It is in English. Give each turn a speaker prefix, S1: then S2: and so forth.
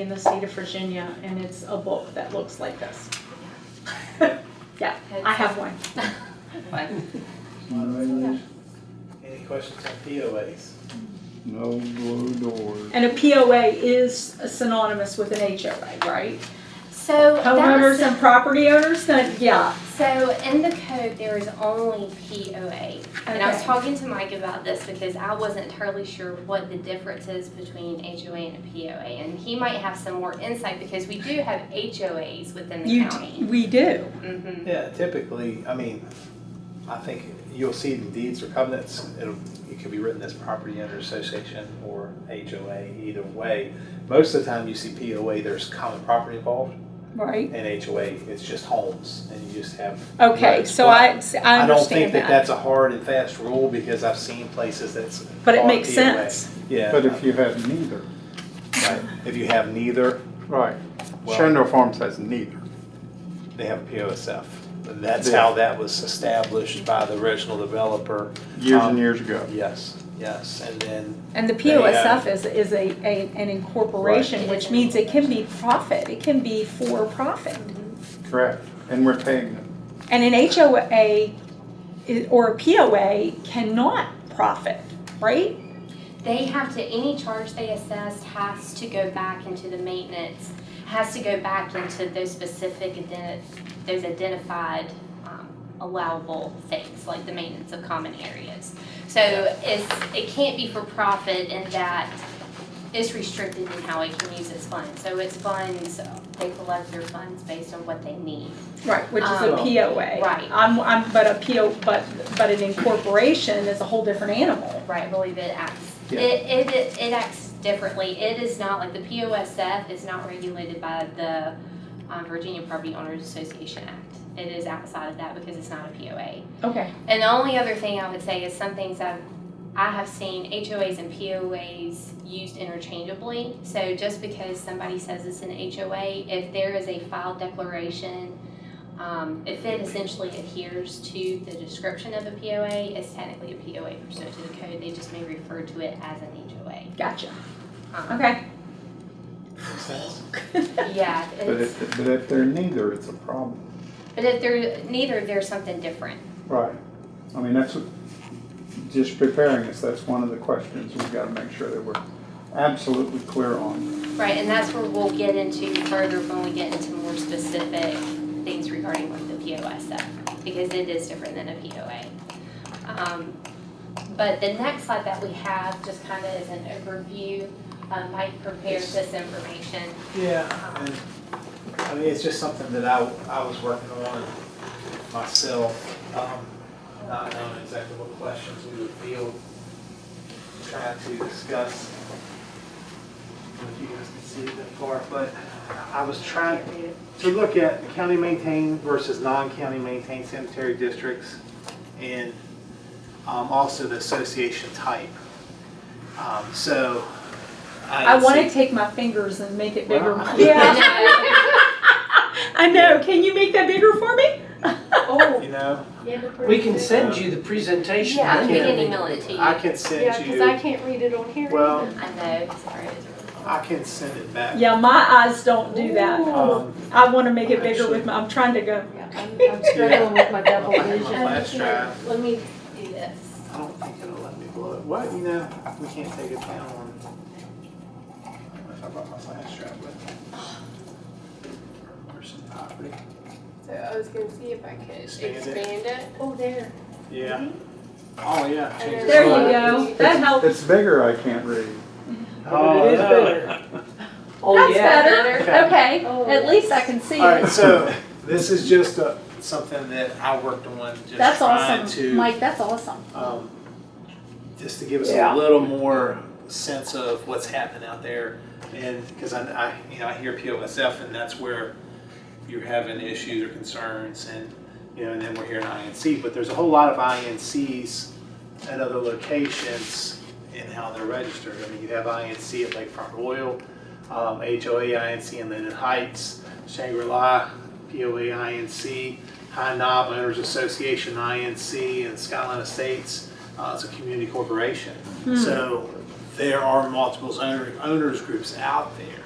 S1: in the state of Virginia, and it's a book that looks like this. Yeah, I have one.
S2: Fine.
S3: Moderators,
S4: Any questions on POAs?
S3: no blue doors.
S1: And a POA is synonymous with an HOA, right?
S5: So
S1: Homeowners
S5: that's,
S1: and property owners, then, yeah.
S5: so in the code, there is only POA. And I was
S1: Okay.
S5: talking to Mike about this because I wasn't entirely sure what the difference is between HOA and a POA. And he might have some more insight because we do have HOAs within the
S1: You,
S5: county.
S1: we do.
S5: Mhm.
S4: Yeah, typically, I mean, I think you'll see the deeds or covenants, it'll, it could be written as property owner association or HOA, either way. Most of the time you see POA, there's common property involved,
S1: Right.
S4: and HOA, it's just homes, and you just have.
S1: Okay,
S4: roads.
S1: so
S4: But
S1: I, see, I
S4: I don't think
S1: understand
S4: that
S1: that.
S4: that's a hard and fast rule, because I've seen places that's.
S1: But it
S4: called
S1: makes
S4: POA.
S1: sense.
S4: Yeah.
S3: But if you have neither,
S4: right. If you have neither,
S3: right,
S4: Well-
S3: Shandor Farms has neither.
S4: they have a POSF. And that's
S3: Yeah.
S4: how that was established by the original developer.
S3: Years
S4: Um,
S3: and years ago.
S4: Yes, yes, and then,
S1: And the
S4: Yeah.
S1: POSF is, is a, a, an incorporation,
S5: Right.
S1: which means it can be profit, it can be for profit.
S3: Correct. And we're paying them.
S1: And an HOA i- or a POA cannot profit, right?
S5: They have to, any charge they assessed has to go back into the maintenance, has to go back into those specific, ident- those identified um, allowable things, like the maintenance of common areas. So it's, it can't be for profit in that it's restricted in how it can use its funds. So its funds, they collect their funds based on what they need.
S1: Right. Which is a
S5: Um,
S1: POA.
S5: right.
S1: I'm, I'm, but a PO, but, but an incorporation is a whole different animal.
S5: Right, I believe it acts, it,
S4: Yeah.
S5: it, it acts differently. It is not, like, the POSF is not regulated by the um, Virginia Property Owners Association Act. It is outside of that because it's not a POA.
S1: Okay.
S5: And the only other thing I would say is some things I've, I have seen HOAs and POAs used interchangeably. So just because somebody says it's an HOA, if there is a filed declaration, um, if it essentially adheres to the description of a POA, it's technically a POA pursuant to the code. They just may refer to it as an HOA.
S1: Gotcha.
S5: Um,
S1: Okay.
S5: Yeah,
S3: But
S5: it's,
S3: if, but if they're neither, it's a problem.
S5: but if they're neither, there's something different.
S3: Right. I mean, that's, what- just preparing us, that's one of the questions we've got to make sure that we're absolutely clear on.
S5: Right, and that's where we'll get into further when we get into more specific things regarding like the POS stuff, because it is different than a POA. Um, But the next slide that we have, just kind of is an overview, um, Mike prepared this information.
S4: yeah, and, I mean, it's just something that I, I was working on myself, um, not knowing exactly what questions we would field, trying to discuss. If you guys can see that far, but I was trying to look at county maintained versus non-county maintained cemetery districts and, um, also the association type. Um, so.
S1: I
S4: had
S1: want
S4: seen-
S1: to take my fingers and make it bigger.
S4: Wow.
S1: Yeah.
S5: No,
S1: I know. Can you make that bigger for me?
S4: You know,
S6: We can send you the presentation.
S5: Yeah, we
S4: Yeah.
S5: can email it to you.
S4: I
S5: I
S4: can
S7: Yeah,
S4: send
S7: because I
S4: you,
S7: can't read it on here.
S4: well,
S5: know, sorry. it's really hard.
S4: I can send it back.
S1: Yeah, my eyes don't do that.
S7: Oh,
S4: Um,
S1: I want to make it bigger with my, I'm trying to go.
S7: Yeah, I'm I'm struggling with my double
S4: Yeah.
S7: vision.
S4: Flash drive.
S7: Let me,
S5: Do this.
S4: I don't think it'll let me blow it, what, you know, we can't take it down on. I don't know if I brought my flash drive with me. Or some property.
S7: so I was gonna see if I could
S4: Expand it.
S7: expand it. Oh, there. Mm-hmm.
S4: Yeah. Oh, yeah. change the
S1: There you
S4: slide.
S1: go. That helps.
S3: It's bigger, I can't read.
S4: Oh,
S6: It is
S4: no.
S6: better. Oh,
S1: That's
S6: yeah.
S1: better.
S4: Okay.
S1: Okay.
S7: Oh.
S1: At least I can see
S4: All right,
S1: it.
S4: so this is just a, something that I worked on, just
S1: That's
S4: trying
S1: awesome.
S4: to,
S1: Mike, that's awesome.
S4: um, just to give us
S6: Yeah.
S4: a little more sense of what's happening out there. And, because I, I, you know, I hear POSF and that's where you're having issues or concerns and, you know, and then we're hearing INC, but there's a whole lot of INCs at other locations and how they're registered. I mean, you have INC at Lakefront Royal, um, HOA INC in Linden Heights, Shangri-La, POA INC, High Knob Owners Association INC, and Skyline Estates, uh, it's a community corporation. So there are multiple owner, owners groups out there.